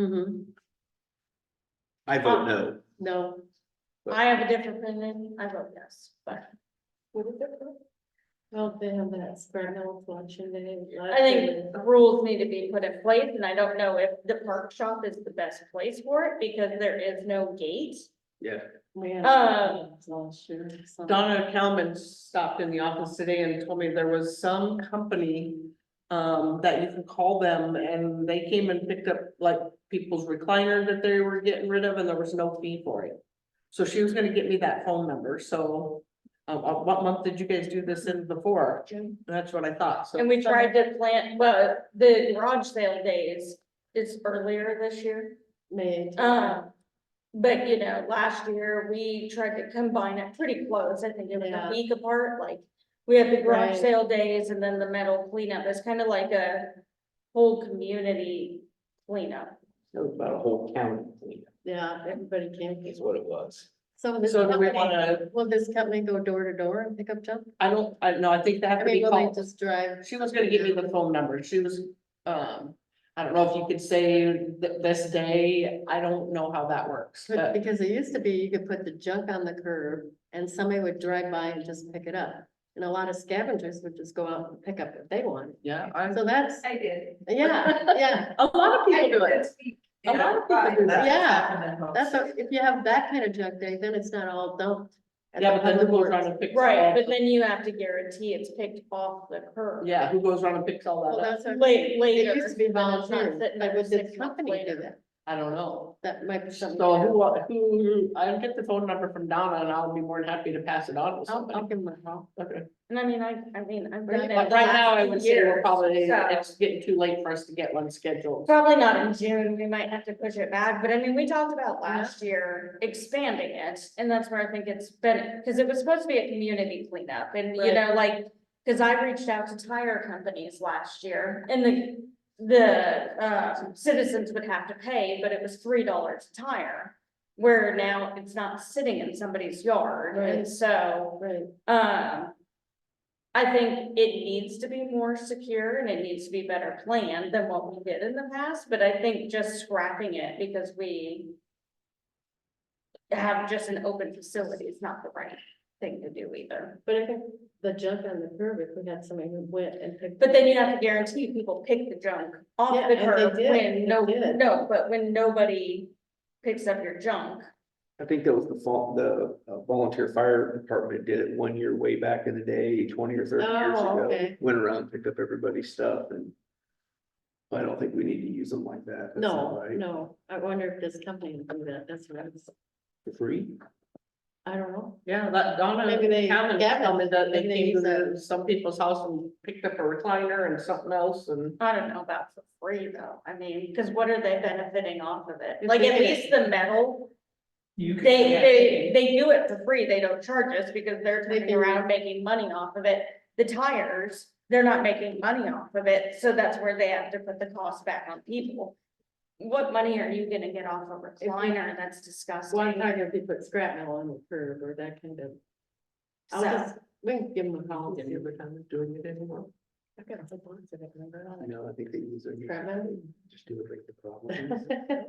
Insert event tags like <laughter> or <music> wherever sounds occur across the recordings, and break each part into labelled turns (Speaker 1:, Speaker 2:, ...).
Speaker 1: Mm-hmm,
Speaker 2: I vote no.
Speaker 1: no. I have a different opinion, I vote yes, but.
Speaker 3: What is it for?
Speaker 4: Well, they have that square mill collection day.
Speaker 1: I think the rules need to be put in place, and I don't know if the park shop is the best place for it, because there is no gate.
Speaker 4: uh,
Speaker 1: um,
Speaker 3: Donna Kalman stopped in the office today and told me there was some company. Um, that you can call them and they came and picked up like people's recliner that they were getting rid of and there was no fee for it. So she was gonna get me that phone number, so, uh, uh, what month did you guys do this in before?
Speaker 1: June.
Speaker 3: That's what I thought, so.
Speaker 1: And we tried to plant, well, the garage sale day is, is earlier this year.
Speaker 4: May.
Speaker 1: Um, but you know, last year, we tried to combine it pretty close, I think it was a
Speaker 4: Yeah.
Speaker 1: week apart, like. We had the garage
Speaker 4: Right.
Speaker 1: sale days and then the metal cleanup, it's kind of like a whole community cleanup.
Speaker 2: It was about a whole county cleanup
Speaker 4: Yeah, everybody came.
Speaker 2: is what it was.
Speaker 4: So this
Speaker 3: So do we
Speaker 4: company,
Speaker 3: wanna-
Speaker 4: will this company go door to door and pick up junk?
Speaker 3: I don't, I no, I think they have
Speaker 4: I
Speaker 3: to
Speaker 4: mean,
Speaker 3: be
Speaker 4: will
Speaker 3: called.
Speaker 4: they just drive?
Speaker 3: She was gonna give me the phone number, she was, um, I don't know if you could say th- this day, I don't know how that works,
Speaker 4: But- <laughs>
Speaker 3: but.
Speaker 4: Because it used to be you could put the junk on the curb and somebody would drive by and just pick it up. And a lot of scavengers would just go out and pick up what they wanted.
Speaker 3: Yeah, I,
Speaker 4: So that's,
Speaker 5: I did.
Speaker 4: yeah, yeah,
Speaker 3: a lot of people do it,
Speaker 5: A lot of people do that. Yeah,
Speaker 4: that's, what- if you have that kind of junk day, then it's not all dumped. at
Speaker 3: yeah, but then
Speaker 4: the
Speaker 3: who goes
Speaker 4: board.
Speaker 3: around and picks?
Speaker 1: Right,
Speaker 3: all-
Speaker 1: but then you have to guarantee it's picked off the curb.
Speaker 3: Yeah, who goes around and picks all
Speaker 4: Well,
Speaker 3: that up,
Speaker 4: that's what.
Speaker 1: Late,
Speaker 4: It
Speaker 1: later.
Speaker 4: used to be
Speaker 1: and then it's not
Speaker 4: volunteer, but
Speaker 1: sitting there
Speaker 4: would the
Speaker 1: six months
Speaker 4: company do
Speaker 1: later.
Speaker 4: that?
Speaker 3: I don't know.
Speaker 4: That might be something.
Speaker 3: So
Speaker 4: to
Speaker 3: who, wa- who, I'll get the phone number from Donna and I'll be more than happy to pass it on to
Speaker 4: I'll, I'll
Speaker 3: somebody.
Speaker 4: give them a call.
Speaker 3: Okay,
Speaker 1: And I mean, I, I mean, I'm.
Speaker 4: Right,
Speaker 1: bringing it
Speaker 3: but
Speaker 1: the
Speaker 3: right
Speaker 1: last
Speaker 3: now I
Speaker 1: few
Speaker 3: would say we're
Speaker 1: years,
Speaker 3: probably,
Speaker 1: so-
Speaker 3: it's getting too late for us to get one scheduled.
Speaker 1: Probably not in June, we might have to push it back, but I mean, we talked about last year expanding it, and that's where I think it's been, because it was supposed to be a community cleanup, and you
Speaker 3: Right.
Speaker 1: know, like. Cause I reached out to tire companies last year, and the, the, um citizens would have to pay, but it was three dollars a tire. Where now it's not sitting in somebody's yard, and
Speaker 4: Right.
Speaker 1: so.
Speaker 4: Right.
Speaker 1: Um. I think it needs to be more secure and it needs to be better planned than what we did in the past, but I think just scrapping it because we. Have just an open facility is not the right thing to do either,
Speaker 4: But I think the junk on the curb, if we had somebody who went and picked.
Speaker 1: but then you have to guarantee people pick the junk
Speaker 4: Yeah,
Speaker 1: off the
Speaker 4: and they
Speaker 1: curb
Speaker 4: did,
Speaker 1: when no,
Speaker 4: they did.
Speaker 1: no, but when nobody. Picks up your junk,
Speaker 2: I think that was the fault, the uh, volunteer fire department did it one year way back in the day, twenty or thirty years
Speaker 4: Oh,
Speaker 2: ago.
Speaker 4: okay.
Speaker 2: Went around, picked up everybody's stuff and. I don't think we need to use them like that. That's not
Speaker 4: No,
Speaker 2: right.
Speaker 4: no, I wonder if this company would do that, that's what I was,
Speaker 2: For free?
Speaker 4: I don't know.
Speaker 3: Yeah, that Donna,
Speaker 4: Maybe they-
Speaker 3: Calvin,
Speaker 4: Gavin,
Speaker 3: Calvin, that they
Speaker 4: maybe they
Speaker 3: came to
Speaker 4: use
Speaker 3: the- some people's house and picked up a recliner and something else and.
Speaker 1: I don't know about for free though, I mean, cause what are they benefiting off of it?
Speaker 3: If
Speaker 1: Like
Speaker 3: they
Speaker 1: at
Speaker 3: can-
Speaker 1: least the metal
Speaker 2: You could.
Speaker 1: They, they, they do it for free, they don't charge us because they're
Speaker 4: They
Speaker 1: turning
Speaker 4: do.
Speaker 1: around making money off of it. The tires, they're not making money off of it, so that's where they have to put the cost back on people. What money are you gonna get off a
Speaker 4: you-
Speaker 1: recliner? That's
Speaker 4: Well, I'm
Speaker 1: disgusting.
Speaker 4: talking if you put scrap metal on the curb or that kind of. I'll
Speaker 1: So-
Speaker 4: just, we can give them a call.
Speaker 3: Have you ever done it, doing it anymore?
Speaker 4: I've got a whole bunch of it, remember all
Speaker 2: I know, I think they use
Speaker 4: that
Speaker 2: them.
Speaker 4: Scrap metal.
Speaker 2: Just do it like the
Speaker 4: <laughs>
Speaker 2: problem.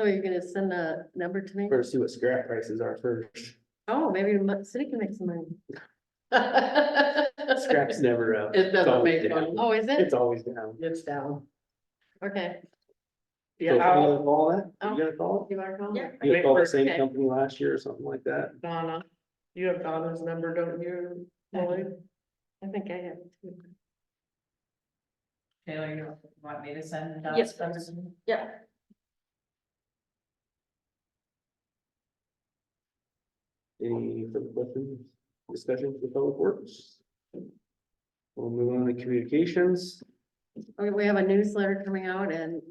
Speaker 4: So you're gonna send a number to me?
Speaker 2: First, see what scrap prices are first.
Speaker 4: Oh, maybe the mo- city can make some money.
Speaker 2: Scrap's never up.
Speaker 3: It
Speaker 2: It's
Speaker 3: doesn't
Speaker 2: always
Speaker 3: make
Speaker 2: down.
Speaker 3: one,
Speaker 4: Oh, is it?
Speaker 2: It's always down.
Speaker 3: it's down.
Speaker 4: Okay,
Speaker 2: So,
Speaker 3: Yeah, I'll-
Speaker 2: you gonna call that? You
Speaker 4: Oh.
Speaker 2: gonna call?
Speaker 4: you are calling.
Speaker 1: Yeah.
Speaker 2: it? You gonna call the same
Speaker 4: Okay.
Speaker 2: company last year or something like that?
Speaker 3: Donna, you have Donna's number, don't you? Lloyd?
Speaker 4: I think I have. two.
Speaker 5: Taylor, you want me to send? down
Speaker 1: Yes,
Speaker 5: some-
Speaker 1: Yeah,
Speaker 2: Any further questions, discussions with public works? We'll move on to communications.
Speaker 4: Okay, we have a newsletter coming out and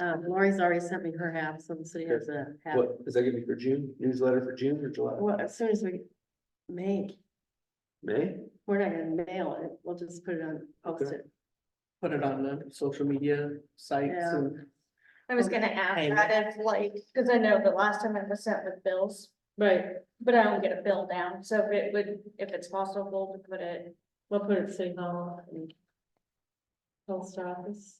Speaker 4: um, Lori's already sent me her half, so the city has a half.
Speaker 2: What, is that gonna be for June, newsletter for June or July,
Speaker 4: Well, as soon as we make,
Speaker 2: May?
Speaker 4: we're not gonna mail it, we'll just put it on, post
Speaker 2: Okay.
Speaker 4: it.
Speaker 3: Put it on the social media sites
Speaker 4: Yeah.
Speaker 3: and.
Speaker 1: I was gonna ask that if like, cause I know the last time I was sent with bills,
Speaker 4: Right,
Speaker 1: but I don't get a bill down, so if it would, if it's possible to put it.
Speaker 4: we'll put it at City Hall and post office.